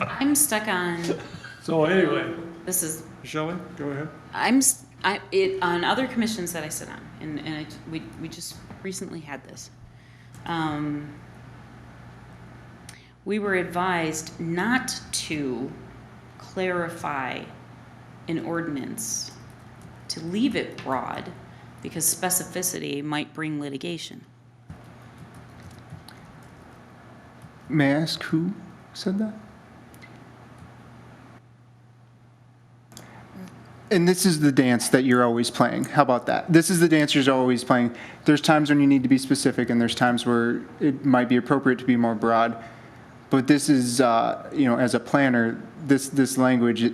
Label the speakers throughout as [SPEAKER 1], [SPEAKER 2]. [SPEAKER 1] I'm stuck on,
[SPEAKER 2] So anyway,
[SPEAKER 1] this is,
[SPEAKER 2] Shelley, go ahead.
[SPEAKER 1] I'm, s- I, it, on other commissions that I sit on, and, and I, we, we just recently had this. Um, we were advised not to clarify an ordinance, to leave it broad, because specificity might bring litigation.
[SPEAKER 3] May I ask who said that? And this is the dance that you're always playing. How about that? This is the dance you're always playing. There's times when you need to be specific, and there's times where it might be appropriate to be more broad. But this is, uh, you know, as a planner, this this language it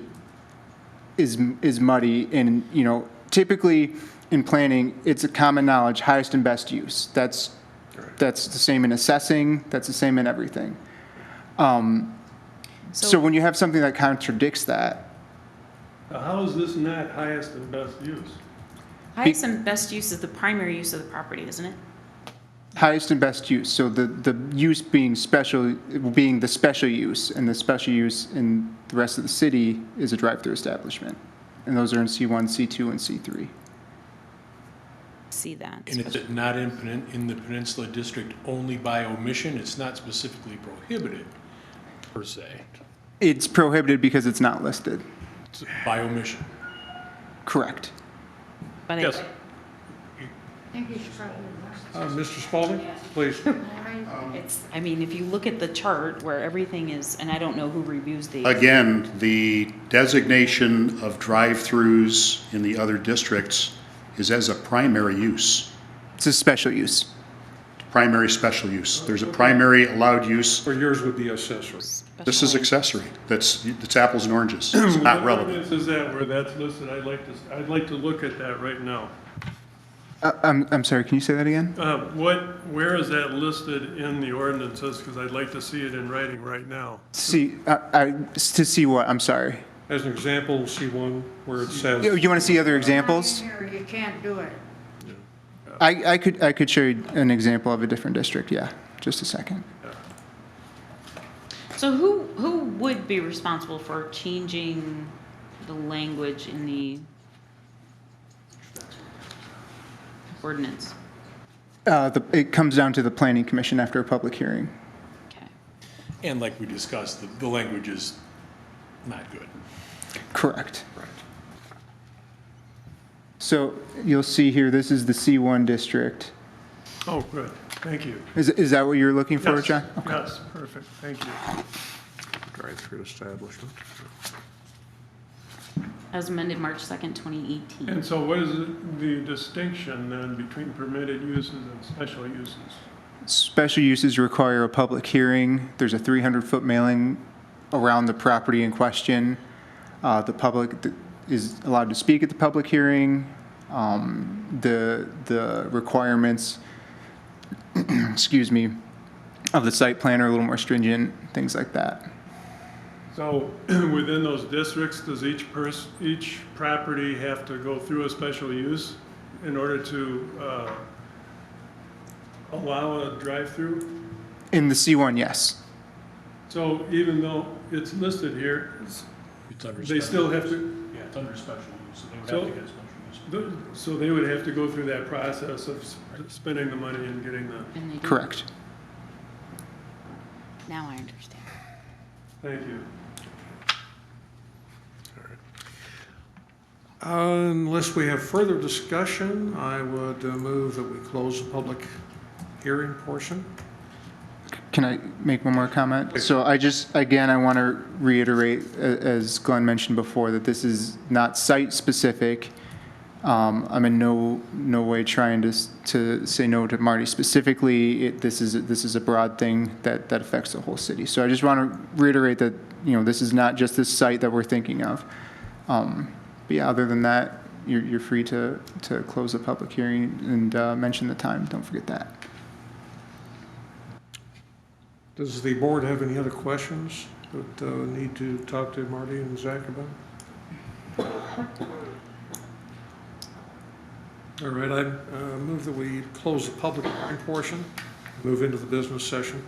[SPEAKER 3] is is muddy, and you know, typically in planning, it's a common knowledge, highest and best use. That's that's the same in assessing. That's the same in everything. So when you have something that contradicts that,
[SPEAKER 2] Now, uh, how is this not highest and best use?
[SPEAKER 1] Highest and best use is the primary use of the property, isn't it?
[SPEAKER 3] highest and best use, so the, the use being special, being the special use, and the special use in the rest of the city is a drive-through establishment. And those are in C1, C2, and C3.
[SPEAKER 1] See that.
[SPEAKER 4] And it's not in, Penin- in the Peninsula District only by omission, it's not specifically prohibited, per se,
[SPEAKER 3] It's prohibited because it's not listed.
[SPEAKER 4] It's by omission.
[SPEAKER 3] Correct.
[SPEAKER 1] But I,
[SPEAKER 2] Yes,
[SPEAKER 5] I think you should probably watch
[SPEAKER 2] uh, Mr. Spalding, please.
[SPEAKER 5] that.
[SPEAKER 1] it's, I mean, if you look at the chart where everything is, and I don't know who reviews these.
[SPEAKER 6] Again, the designation of drive-throughs in the other districts is as a primary use,
[SPEAKER 3] It's a special use.
[SPEAKER 6] primary special use. There's a primary allowed use.
[SPEAKER 2] Or yours would be accessory.
[SPEAKER 6] This is accessory. That's, it's apples and oranges. It's
[SPEAKER 2] What
[SPEAKER 6] not relevant.
[SPEAKER 2] ordinance Is that where that's listed? I'd like to, s- I'd like to look at that right now.
[SPEAKER 3] Uh, I'm, I'm sorry, can you say that again?
[SPEAKER 2] Uh, What, where is that listed in the ordinances? Because I'd like to see it in writing right now.
[SPEAKER 3] See, I, uh, I, to see what, I'm sorry.
[SPEAKER 2] As an example, see one where it
[SPEAKER 3] You,
[SPEAKER 2] says,
[SPEAKER 3] you wanna see other examples?
[SPEAKER 5] Here, You can't do it.
[SPEAKER 3] I, I could, I could show you an example of a different district, yeah, just a second.
[SPEAKER 1] So who, who would be responsible for changing the language in the ordinance?
[SPEAKER 3] Uh, the, it comes down to the planning commission after a public hearing.
[SPEAKER 1] Okay.
[SPEAKER 4] And like we discussed, the, the language is not good.
[SPEAKER 3] Correct. So you'll see here, this is the C1 district.
[SPEAKER 2] oh, good, thank you.
[SPEAKER 3] Is, is that what you're looking for,
[SPEAKER 2] Yes,
[SPEAKER 3] John?
[SPEAKER 2] Yes, perfect, thank you.
[SPEAKER 7] Drive-through establishment.
[SPEAKER 1] As amended March second, twenty eighteen.
[SPEAKER 2] And so what is the distinction then between permitted uses and special uses?
[SPEAKER 3] Special uses require a public hearing. There's a 300-foot mailing around the property in question. Uh, The public th- is allowed to speak at the public hearing. Um, The, the requirements, excuse me, of the site plan are a little more stringent, things like that.
[SPEAKER 2] So within those districts, does each person, each property have to go through a special use in order to uh, allow a drive-through?
[SPEAKER 3] In the C1, yes.
[SPEAKER 2] So even though it's listed here, it's-
[SPEAKER 4] It's under
[SPEAKER 2] they
[SPEAKER 4] special-
[SPEAKER 2] still have to,
[SPEAKER 4] Yeah, it's under special use, so they would
[SPEAKER 2] So-
[SPEAKER 4] have to get a special use.
[SPEAKER 2] the- so they would have to go through that process of s- spending the money and getting the,
[SPEAKER 1] And they do-
[SPEAKER 3] Correct.
[SPEAKER 1] Now I understand.
[SPEAKER 2] thank you.
[SPEAKER 7] Unless we have further discussion, I would uh, move that we close the public hearing portion.
[SPEAKER 3] Can I make one more comment? So I just, again, I want to reiterate, a- as Glenn mentioned before, that this is not site-specific. Um, I'm in no, no way trying to, s- to say no to Marty specifically. It, this is, this is a broad thing that, that affects the whole city. So I just want to reiterate that, you know, this is not just this site that we're thinking of. Um, But yeah, other than that, you're, you're free to, to close the public hearing and uh, mention the time. Don't forget that.
[SPEAKER 7] Does the board have any other questions that uh, need to talk to Marty and Zach about? All right, I uh, move that we close the public hearing portion, move into the business session.